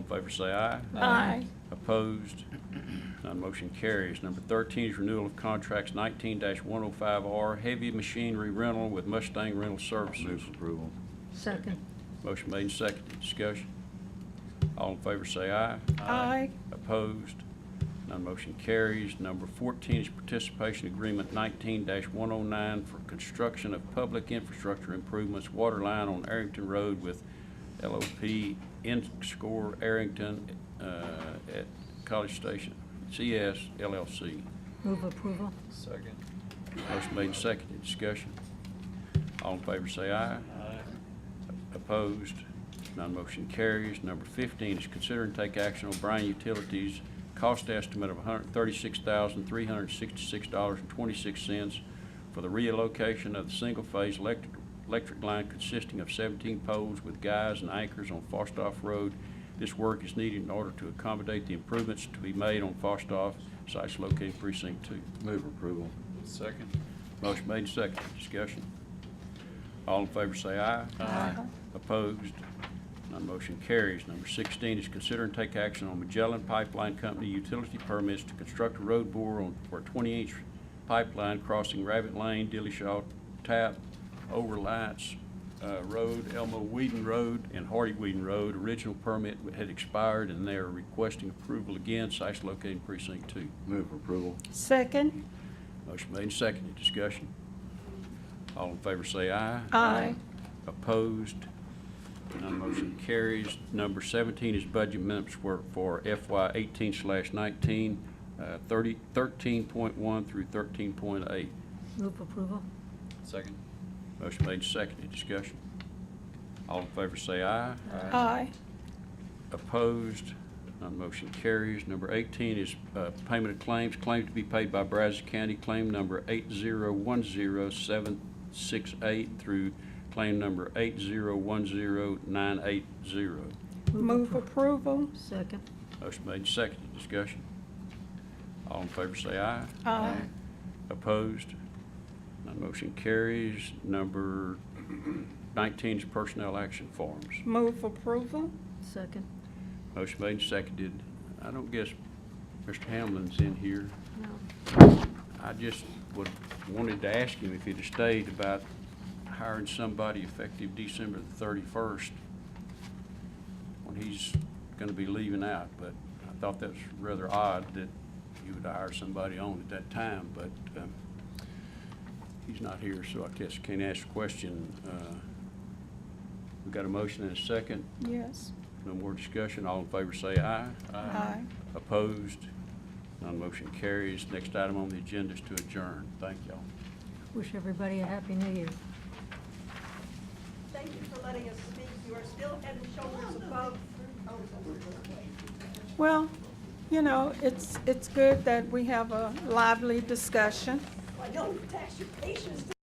favor say aye. Aye. Opposed? None motion carries. Number 13 is renewal of contracts 19-105R Heavy Machinery Rental with Mustang Rental Services. Move approval. Second. Motion made and seconded. Discussion. All in favor say aye. Aye. Opposed? None motion carries. Number 14 is participation agreement 19-109 for construction of public infrastructure improvements, water line on Arrington Road with LOP Score Arrington uh, at College Station, CS LLC. Move approval. Second. Motion made and seconded. Discussion. All in favor say aye. Aye. Opposed? None motion carries. Number 15 is consider and take action on Bryan Utilities cost estimate of $136,366.26 for the relocation of the single-phase electric electric line consisting of 17 poles with guys and anchors on Fostoff Road. This work is needed in order to accommodate the improvements to be made on Fostoff, sites located precinct 2. Move approval. Second. Motion made, and seconded. Discussion. All in favor say aye. Aye. Opposed? None motion carries. Number 16 is consider and take action on Magellan Pipeline Company utility permits to construct a road bore on, for a 20-inch pipeline crossing Rabbit Lane, Dillashaw Tap, Overlights uh, Road, Elmo Whedon Road, and Hardy Whedon Road. Original permit had expired, and they are requesting approval again. Site's located in precinct two. Move approval. Second. Motion made and seconded. Discussion. All in favor say aye. Aye. Opposed? None motion carries. Number 17 is budget amendments for for FY 18 slash 19, uh, 30 13.1 through 13.8. Move approval. Second. Motion made and seconded. Discussion. All in favor say aye. Aye. Opposed? None motion carries. Number 18 is uh, payment of claims. Claim to be paid by Brazos County, claim number 8010768 through claim number 8010980. Move approval. Second. Motion made, and seconded. Discussion. All in favor say aye. Aye. Opposed? None motion carries. Number 19 is personnel action forms. Move approval. Second. Motion made and seconded. I don't guess Mr. Hamlin's in here. No. I just would, wanted to ask him if he'd have stayed about hiring somebody effective December the thirty-first when he's gonna be leaving out, but I thought that was rather odd that you would hire somebody on at that time, but, um, he's not here, so I guess can't ask the question. Uh, We got a motion and a second. Yes. No more discussion. All in favor say aye. Aye. Opposed? None motion carries. Next item on the agenda is to adjourn. Thank y'all. Wish everybody a happy new year. Thank you for letting us speak. You are still head and shoulders above. Oh, Well, you know, it's, it's good that we have a lively discussion. I know it tax your patience